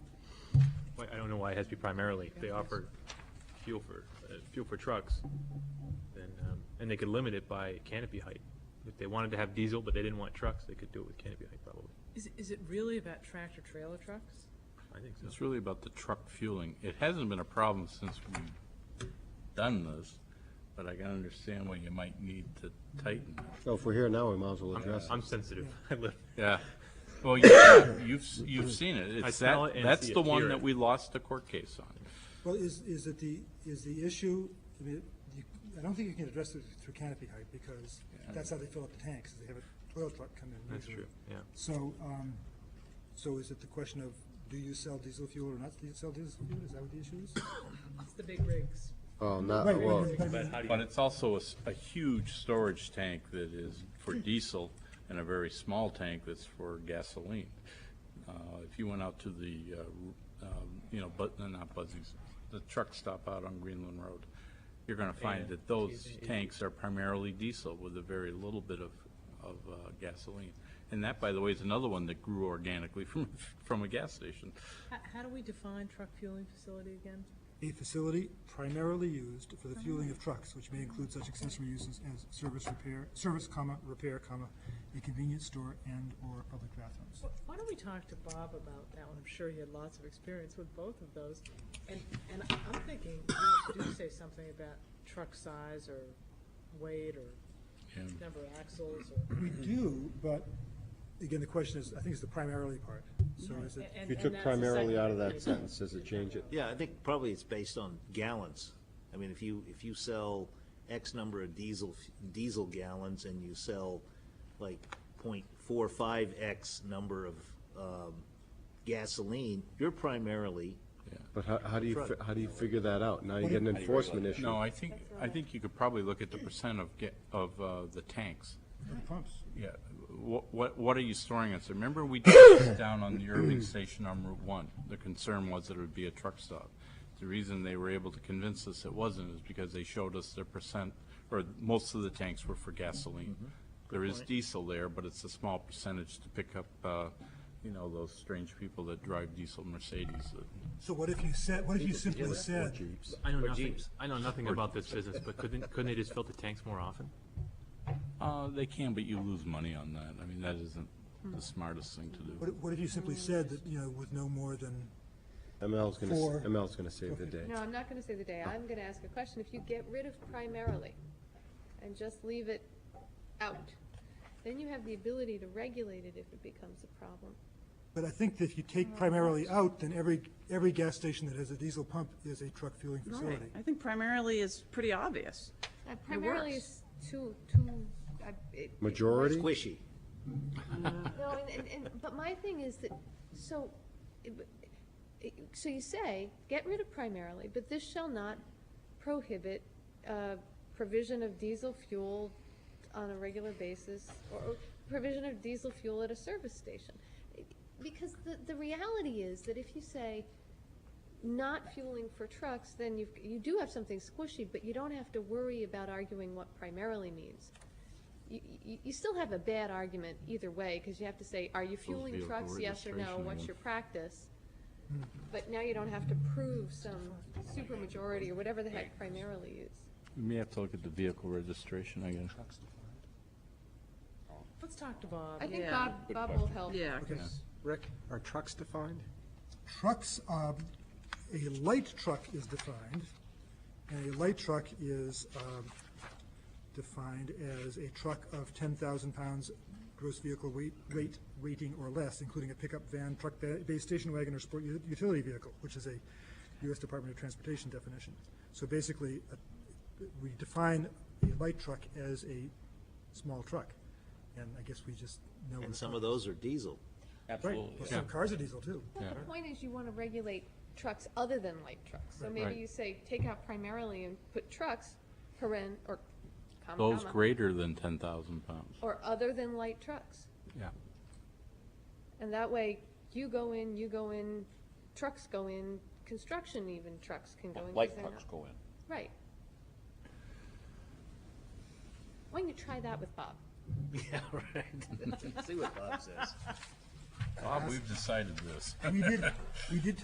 why it has to be primarily, if they offer fuel for, uh, fuel for trucks, then, um, and they could limit it by canopy height. If they wanted to have diesel, but they didn't want trucks, they could do it with canopy height probably. Is, is it really about tractor trailer trucks? I think so. It's really about the truck fueling. It hasn't been a problem since we've done this, but I can understand why you might need to tighten. it. So if we're here now, we might as well address it. I'm sensitive. I live, Yeah. Well, you- you've, you've seen it. I It's smell that, it and that's see the it, hear one it. that we lost the court case on. Well, is, is it the, is the issue, I mean, you, I don't think you can address it through canopy height, because that's how they fill up the tanks, is they have a oil truck come in that's usually. true, yeah. So, um, so is it the question of, do you sell diesel fuel or not, do you sell diesel fuel, is that what the issue is? It's the big rigs. Oh, not, Right, well, but- but- But it's also a, s- a huge storage tank that is for diesel and a very small tank that's for gasoline. Uh, If you went out to the, uh, um, you know, but, no, not Buzzings, the truck stop out on Greenland Road, you're going to find that those tanks are primarily diesel with a very little bit of, of uh, gasoline. And that, by the way, is another one that grew organically from, from a gas station. How, how do we define truck fueling facility again? A facility primarily used for the fueling of trucks, which may include such accessory uses as service repair, service comma, repair comma, a convenience store and/or public bathrooms. Wh- Why don't we talk to Bob about that one? I'm sure he had lots of experience with both of those. And, and I- I'm thinking, you do say something about truck size or weight or And number of axles or. We do, but again, the question is, I think it's the primarily part, so is it? and- and if you that's took the primarily second out of one. that sentence, does it change it? Yeah, I think probably it's based on gallons. I mean, if you, if you sell X number of diesel, diesel gallons and you sell like point four five X number of, um, gasoline, you're primarily, But how, how do you, fi- how do you figure that out? Now you get an enforcement issue. No, I think, I think you could probably look at the percent of, ga- of uh, the tanks. Pumps. Yeah, what, what, what are you storing us? Remember we did this down on the Irving Station on Route One? The concern was that it would be a truck stop. The reason they were able to convince us it wasn't is because they showed us their percent, or most of the tanks were for gasoline. There is diesel there, but it's a small percentage to pick up, uh, you know, those strange people that drive diesel Mercedes. that- So what if you said, what if you simply said, I know nothing, I know nothing about this business, but couldn't, couldn't they just filter tanks more often? Uh, they can, but you lose money on that. I mean, that isn't the smartest thing to what do. if- what if you simply said that, you know, with no more than, ML's gonna, Four. s- ML's gonna save the day. No, I'm not gonna say the day, I'm gonna ask a question, if you get rid of primarily and just leave it out, then you have the ability to regulate it if it becomes a problem. but I think that if you take primarily out, then every, every gas station that has a diesel pump is a truck fueling Right, facility. I think primarily is pretty obvious. Uh, Primarily works. is too, too, I- it. it- Majority? squishy. No, and, and, and, but my thing is that, so, it- but- it- so you say, get rid of primarily, but this shall not prohibit, uh, provision of diesel fuel on a regular basis, or provision of diesel fuel at a service station. Because the, the reality is that if you say, not fueling for trucks, then you, you do have something squishy, but you don't have to worry about arguing what primarily means. You, you, you still have a bad argument either way, because you have to say, are you fueling vehicle trucks, yes or no, registration what's one. your practice? But now you don't have to prove some supermajority or whatever the heck primarily is. We may have to look at the vehicle registration again. Let's talk to Bob. I think Um, Yeah. Bob, Bob will help. Yeah, Rick, are trucks defined? Trucks, um, a light truck is defined, and a light truck is, um, defined as a truck of ten thousand pounds gross vehicle weight, weight, rating or less, including a pickup van, truck, ba- base station wagon, or sport u- utility vehicle, which is a U.S. Department of Transportation definition. So basically, a- we define a light truck as a small truck, and I guess we just know. what And a some truck of is. those are diesel. Right, well, some cars are diesel too. But the point is you want to regulate trucks other than light trucks. So maybe Right. you say, take out primarily and put trucks, paren, or comma, Those comma, greater than 10,000 pounds. Or other than light trucks. Yeah. And that way, you go in, you go in, trucks go in, construction even trucks can go in. 'cause they're not- go in. Right. Why don't you try that with Bob? Yeah, right. See what Bob says. Bob, we've decided this. We did, we did